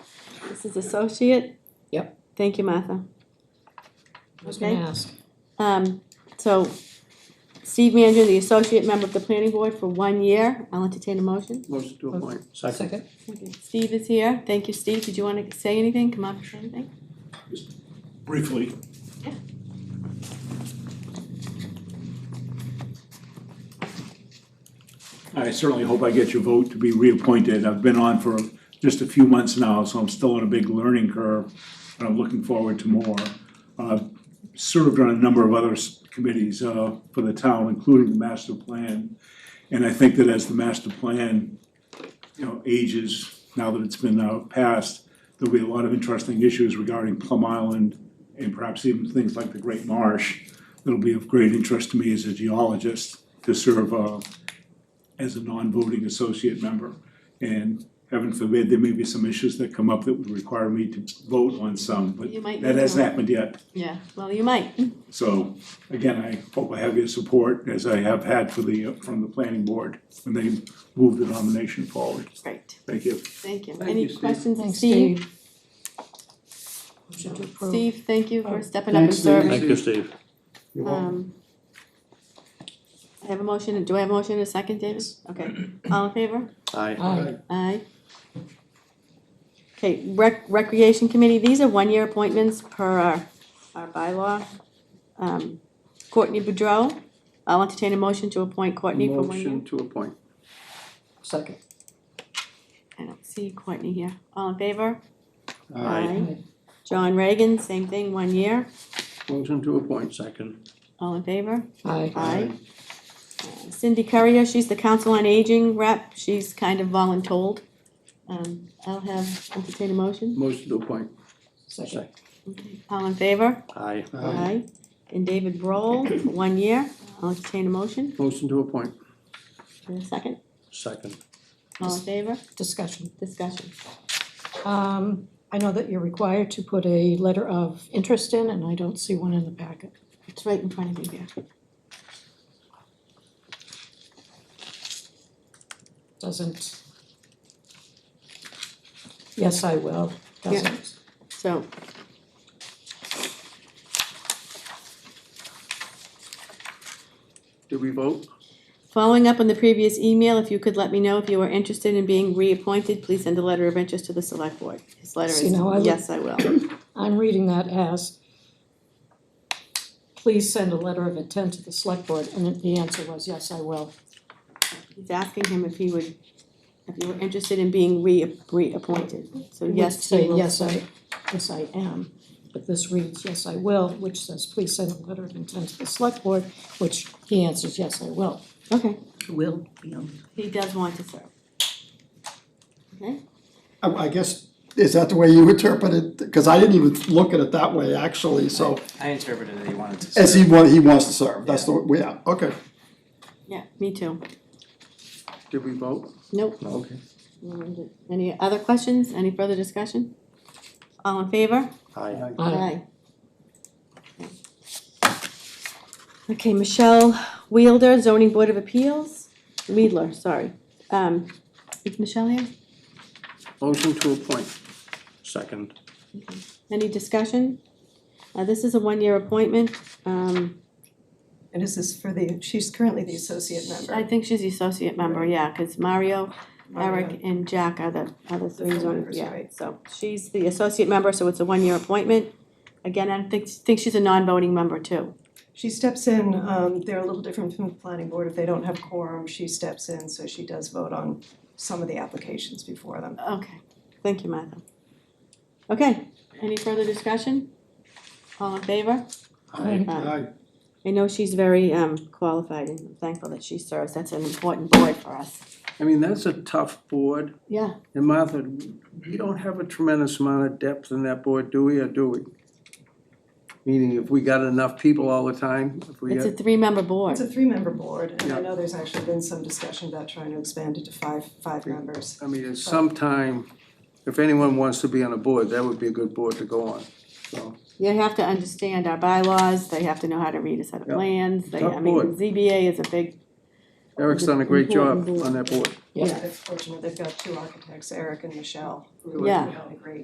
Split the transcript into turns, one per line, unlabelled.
Max's associate.
Yep.
Thank you, Martha.
I was gonna
Okay.
ask.
Um, so Steve Manger, the associate member of the planning board for one year. I'll entertain a motion.
Motion to appoint.
Second?
Steve is here. Thank you, Steve. Did you want to say anything? Come up and say anything?
briefly.
Yeah.
I certainly hope I get your vote to be reappointed. I've been on for just a few months now, so I'm still on a big learning curve, but I'm looking forward to more. I've served on a number of other s- committees uh, for the town, including the master plan. And I think that as the master plan, you know, ages, now that it's been uh, passed, there'll be a lot of interesting issues regarding Plum Island and perhaps even things like the Great Marsh. That'll be of great interest to me as a geologist to serve uh, as a non-voting associate member. And heaven forbid, there may be some issues that come up that would require me to vote on some, but
You might
that
need
hasn't
to.
happened yet.
Yeah, well, you might.
So, again, I hope I have your support, as I have had for the, uh, from the planning board, when they moved the nomination forward.
Great.
Thank you.
Thank you.
Thank
Any
you, Steve.
questions of
Thanks,
Steve?
Motion to approve.
Steve, thank you for stepping up and
Thanks, Steve.
serving.
Thank you, Steve.
You're welcome.
Um. I have a motion, do I have a motion in a second, David? Okay, all in favor?
Aye.
Aye.
Aye. Okay, rec- recreation committee, these are one-year appointments per our, our bylaw. Um, Courtney Boudreau, I'll entertain a motion to appoint Courtney for one year.
Motion to appoint.
Second.
I don't see Courtney here, all in favor?
Aye.
John Reagan, same thing, one year,
Motion to appoint.
Second.
all in favor?
Aye.
Aye. Cindy Currier, she's the Council on Aging rep, she's kind of voluntold. Um, I'll have, entertain a motion.
Motion to appoint.
Second.
All in favor?
Aye.
And David Broll, one year, I'll entertain a motion,
Motion to appoint.
in a second.
Second.
All in favor?
Discussion.
Discussion.
Um, I know that you're required to put a letter of interest in, and I don't see one in the packet.
It's right in front of you here.
Doesn't. Yes, I will. Doesn't.
So.
Did we vote?
Following up on the previous email, if you could let me know if you are interested in being reappointed, please send a letter of interest to the select board. His letter is,
See, now I would-
yes, I will.
I'm reading that as, please send a letter of intent to the select board, and the answer was, yes, I will.
He's asking him if he would, if you were interested in being re- reappointed, so yes, he
Say,
will.
yes, I, yes, I am. But this reads, yes, I will, which says, please send a letter of intent to the select board, which he answers, yes, I will.
Okay,
Will,
he does want to serve. Okay,
I, I guess, is that the way you interpret it? Because I didn't even look at it that way, actually, so,
I interpreted it, he wanted to.
as
serve.
he wa- he wants to serve, that's the, yeah, okay.
yeah, me too.
Did we vote?
Nope.
Okay.
Any other questions? Any further discussion? All in favor?
Aye.
Aye.
Aye. Okay, Michelle Wielder, zoning board of appeals, Weidler, sorry. Um, is Michelle here?
Motion to appoint.
Second.
Any discussion? Uh, this is a one-year appointment, um,
And is this for the, she's currently the associate
I
member.
think she's the associate member, yeah, cause Mario,
Mario.
Eric, and Jack are the, are the three
full
zoning,
members,
yeah,
right.
so she's the associate member, so it's a one-year appointment. Again, I think, think she's a non-voting member too.
She steps in, um, they're a little different from the planning board, if they don't have quorum, she steps in, so she does vote on some of the applications before them.
Okay, thank you, Martha. Okay, any further discussion? All in favor?
Aye.
Aye. I know she's very, um, qualified and I'm thankful that she serves, that's an important board for us.
I mean, that's a tough board,
Yeah,
and Martha, we don't have a tremendous amount of depth in that board, do we, or do we? Meaning if we got enough people all the time, if we
it's a
got,
three-member board.
It's a three-member board, and I
Yeah.
know there's actually been some discussion about trying to expand it to five, five members.
I mean, at some time, if anyone wants to be on a board, that would be a good board to go on, so.
They have to understand our bylaws, they have to know how to read a set of
Yeah.
plans, they, I
Tough
mean,
board.
ZBA is a big,
Eric's done a great job
Important board.
on that board.
Yeah.
They're fortunate, they've got two architects, Eric and Michelle, who
Yeah.
are really great